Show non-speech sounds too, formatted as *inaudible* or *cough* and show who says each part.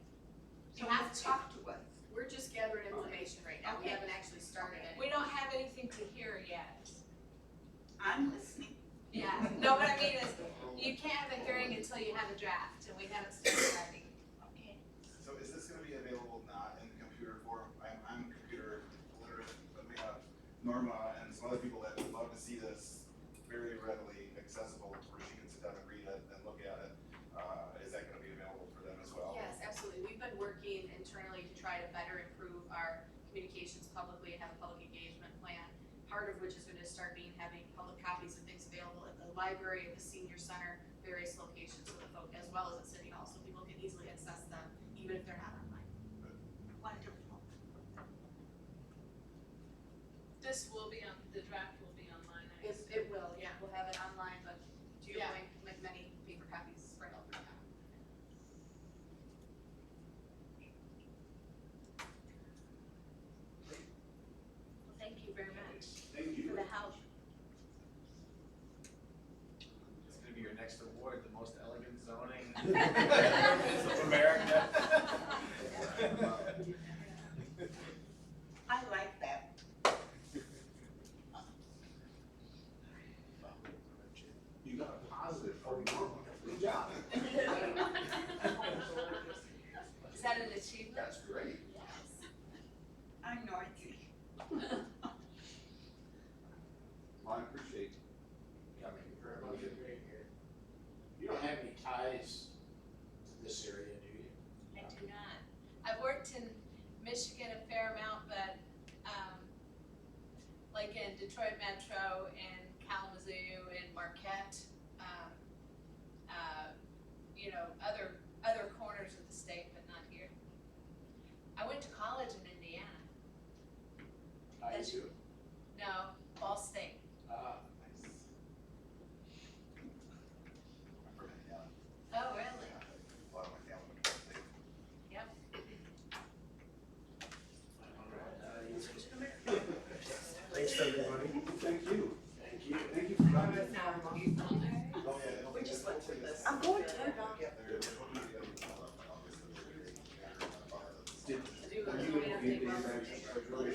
Speaker 1: talked to us.
Speaker 2: We're just gathering information right now, we
Speaker 1: Okay.
Speaker 2: haven't actually started any.
Speaker 3: We don't have anything to hear yet.
Speaker 1: I'm listening.
Speaker 3: Yeah, no, what I mean is, you can't have a hearing until you have a draft, and we haven't started writing.
Speaker 1: Okay.
Speaker 4: So is this gonna be available not in computer form? I'm, I'm computer literate, but we have Norma and some other people that would love to see this very readily accessible, where she can sit down and read it and look at it. Uh, is that gonna be available for them as well?
Speaker 2: Yes, absolutely, we've been working internally to try to better improve our communications publicly and have a public engagement plan. Part of which is gonna start being having public copies of things available at the library, at the senior center, various locations for the folk, as well as at City Hall, so people can easily access them, even if they're not online.
Speaker 1: Wonderful.
Speaker 5: This will be on, the draft will be online, I
Speaker 2: It,
Speaker 5: guess.
Speaker 2: it will, yeah, we'll have it online, but to your
Speaker 5: Yeah.
Speaker 2: point, like many paper copies spread out. right now.
Speaker 6: Well, thank you very much
Speaker 7: Thank
Speaker 6: for the help.
Speaker 8: It's gonna be your next award, the most elegant
Speaker 4: *laughs*
Speaker 8: zoning *laughs*
Speaker 7: of
Speaker 8: America.
Speaker 1: I like that.
Speaker 7: You got a positive for Norma. Good job.
Speaker 3: Is that an achievement?
Speaker 7: That's great.
Speaker 1: I'm Northie.
Speaker 7: Well, I appreciate you coming very much.
Speaker 8: You don't have any ties to this area, do you?
Speaker 3: I do not. I've worked in Michigan a fair amount, but, um, like in Detroit Metro and Kalamazoo and Marquette, um, uh, you know, other, other corners of the state, but not here. I went to college in Indiana.
Speaker 8: Ties to,
Speaker 3: No, Ball State.
Speaker 8: uh,
Speaker 4: I'm from Indiana.
Speaker 3: Oh, really?
Speaker 4: A lot of my family went to Penn State.
Speaker 8: Thanks, everybody.
Speaker 7: Thank you.